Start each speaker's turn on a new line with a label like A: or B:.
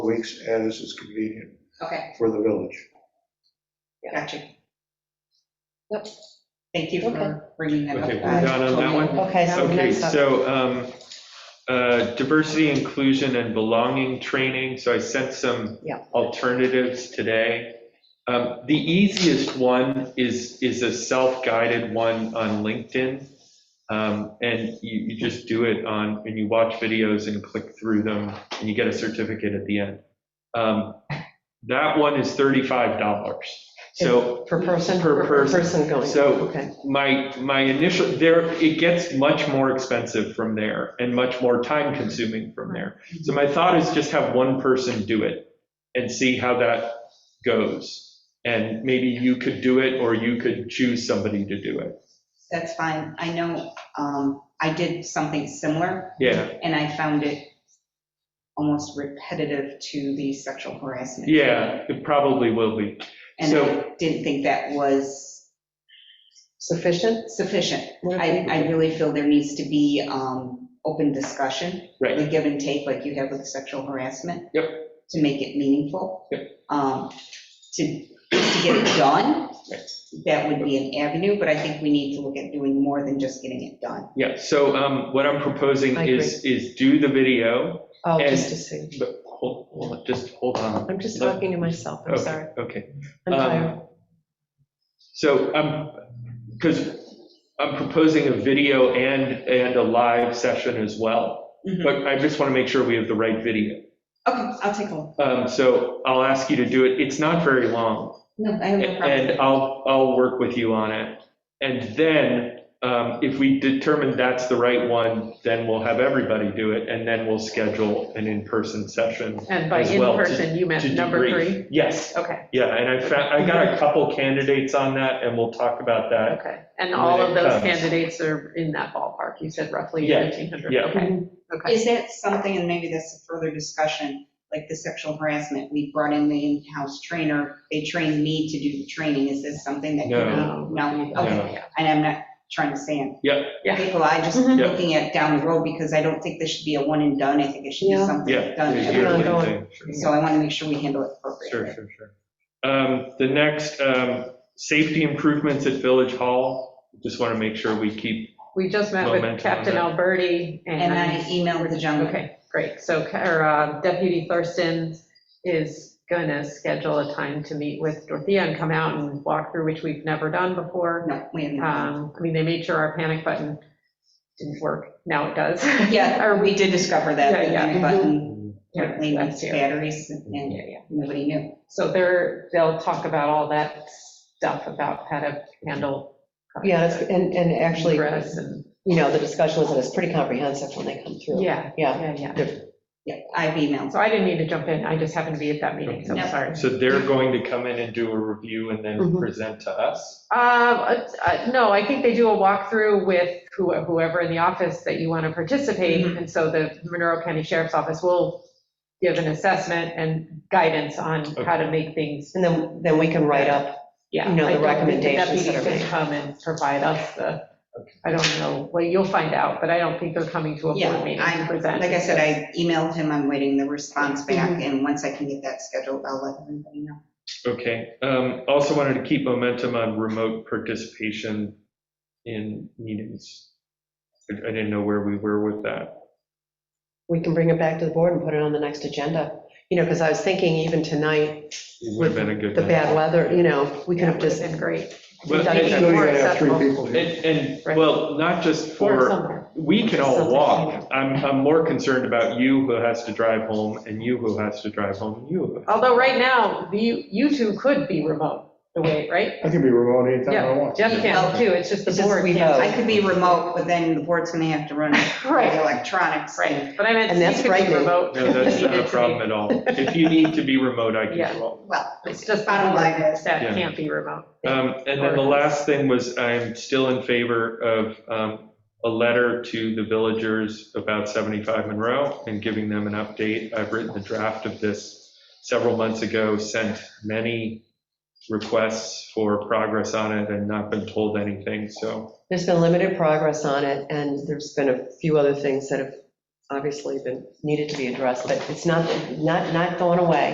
A: weeks as is convenient
B: Okay,
A: for the village.
B: gotcha. Yep. Thank you for bringing that up.
C: Okay, we're done on that one?
D: Okay, so
C: Okay,
D: next up,
C: so um, uh, diversity, inclusion, and belonging training, so I sent some
D: Yeah.
C: alternatives today. Um, The easiest one is, is a self-guided one on LinkedIn. Um, And you, you just do it on, and you watch videos and click through them, and you get a certificate at the end. Um, That one is $35. So
D: per person?
C: per person.
D: going,
C: So-
D: okay.
C: my, my initial, there, it gets much more expensive from there and much more time consuming from there. So my thought is just have one person do it and see how that goes. And maybe you could do it or you could choose somebody to do it.
B: That's fine. I know, um, I did something similar
C: Yeah,
B: and I found it almost repetitive to the sexual harassment.
C: yeah, it probably will be.
B: And
C: so-
B: I didn't think that was
D: Sufficient?
B: sufficient. I, I really feel there needs to be, um, open discussion.
C: Right.
B: The give and take like you have with sexual harassment.
C: Yep.
B: To make it meaningful.
C: Yep.
B: Um, to, to get it done,
C: Right.
B: that would be an avenue, but I think we need to look at doing more than just getting it done.
C: Yeah, so um, what I'm proposing
D: I agree.
C: is, is do the video,
D: Oh,
C: and-
D: just to see.
C: but hold, hold- just hold on.
D: I'm just talking to myself, I'm
C: Okay,
D: sorry.
C: Okay.
D: I'm
C: Um,
D: tired.
C: So I'm, because I'm proposing a video and, and a live session as well, but I just want to make sure we have the right video.
B: Okay, I'll take a look.
C: Um, So I'll ask you to do it. It's not very long,
B: No, I have no problem.
C: and I'll, I'll work with you on it. And then um, if we determine that's the right one, then we'll have everybody do it, and then we'll schedule an in-person session.
E: And by
C: as well, to-
E: in-person, you meant
C: to
E: number
C: debrief.
E: three?
C: Yes,
E: Okay,
C: yeah, and I found, I got a couple candidates on that, and we'll talk about that
E: okay. And all of those
C: Um,
E: candidates are in that ballpark, you said roughly
C: Yeah,
E: 1,500?
C: yeah.
E: Okay, okay.
B: Is that something, and maybe that's a further discussion, like the sexual harassment, we brought in the in-house trainer, they trained me to do the training, is this something that?
C: No.
E: Um,
B: No, okay,
E: yeah.
B: and I'm not trying to say
C: Yeah.
E: Yeah. Mm-hmm.
B: People, I just
D: Mhm.
C: Yeah.
B: looking at down the road, because I don't think this should be a one and done, I think it should be
D: Yeah.
B: something
C: Yeah.
B: done.
C: it's
B: every-
D: yearly.
C: yearly
D: Ongoing.
C: thing, sure.
B: So I want to make sure we handle it
C: Sure,
B: appropriately.
C: sure, sure. Um, The next, um, safety improvements at Village Hall. Just want to make sure we keep,
E: We just met
C: Momentum on
E: with Captain
C: that.
E: Alberti
B: And I
E: and,
B: emailed the
D: Um,
B: jungle.
E: okay, great. So or, uh, Deputy Thurston is going to schedule a time to meet with Dorothea and come out and walk through, which we've never done before.
B: No, we haven't.
E: Um, I mean, they made sure our panic button didn't work. Now it does.
B: Yeah,
E: Or
B: or we did discover that,
E: Yeah,
B: the
E: yeah.
B: panic button,
E: Yeah,
B: apparently needs
E: that's here.
B: batteries, and
E: Yeah, yeah.
B: nobody knew.
E: So they're, they'll talk about all that stuff about how to handle.
D: Yeah, that's- and, and actually,
E: Stress and,
D: you know, the discussion was, that it's pretty comprehensive when they come through.
E: yeah,
D: Yeah.
E: yeah, yeah.
B: Yeah, I've emailed.
E: So I didn't mean to jump in, I just happened to be at that meeting, so I'm
B: No.
E: sorry.
C: so they're going to come in and do a review and then
D: Mhm.
C: present to us.
E: Uh, uh, no, I think they do a walkthrough with who- whoever in the office that you want to participate.
D: Mm-hmm.
B: Mhm.
E: And so the Monroe County Sheriff's Office will give an assessment and guidance on how to make things,
D: And then, then we can write up,
E: yeah.
D: You know, the
E: I don't think
D: recommendations that are
E: Deputies can
D: made.
E: come and provide us the, I don't know, well, you'll find out, but I don't think they're coming to a
B: Yeah,
E: board meeting
B: I,
E: to present.
B: like I said, I emailed him, I'm waiting the response
E: Mm-hmm.
B: back, and once I can get that scheduled, I'll let everybody know.
C: Okay. Um, Also wanted to keep momentum on remote participation in meetings. I I didn't know where we were with that.
D: we can bring it back to the board and put it on the next agenda. You know, because I was thinking even tonight,
C: It would have been a good.
D: the
C: one.
D: bad weather, you know, we could
E: Yeah,
D: have
E: it would have
D: just,
E: been great.
C: Well,
D: Done it.
A: Still, you gotta have three people
C: And,
A: here.
C: and,
E: Right.
C: well, not just
E: Or
C: for.
E: somewhere.
C: We can all
D: Something.
C: walk. I'm, I'm more concerned about you who has to drive home and you who has to drive home, and you. who-
E: Although right now, you, you two could be remote, the way, right?
A: I can be remote anytime I want.
E: Jeff can too, it's just the
D: It's just
E: board
D: we
E: can't.
B: I could be remote, but then the board's gonna have to run
E: Oh. Right.
B: electronics.
E: Right, but I meant
D: And
E: you
D: that's
E: could be
D: frightening.
E: remote.
C: No, that's
E: You
C: not a
E: did
C: problem
E: say-
C: at all. If you need to be remote, I can
E: Yeah.
C: do all.
B: Well,
E: It's just
B: Bottom
E: bottom
B: line
E: line
B: is-
C: Yeah.
E: that can't be remote.
C: Um, And then the last thing was, I am still in favor of um, a letter to the villagers about 75 Monroe and giving them an update. I've written the draft of this several months ago, sent many requests for progress on it and not been told anything, so.
D: there's been limited progress on it, and there's been a few other things that have obviously been, needed to be addressed, but it's not, not, not going away.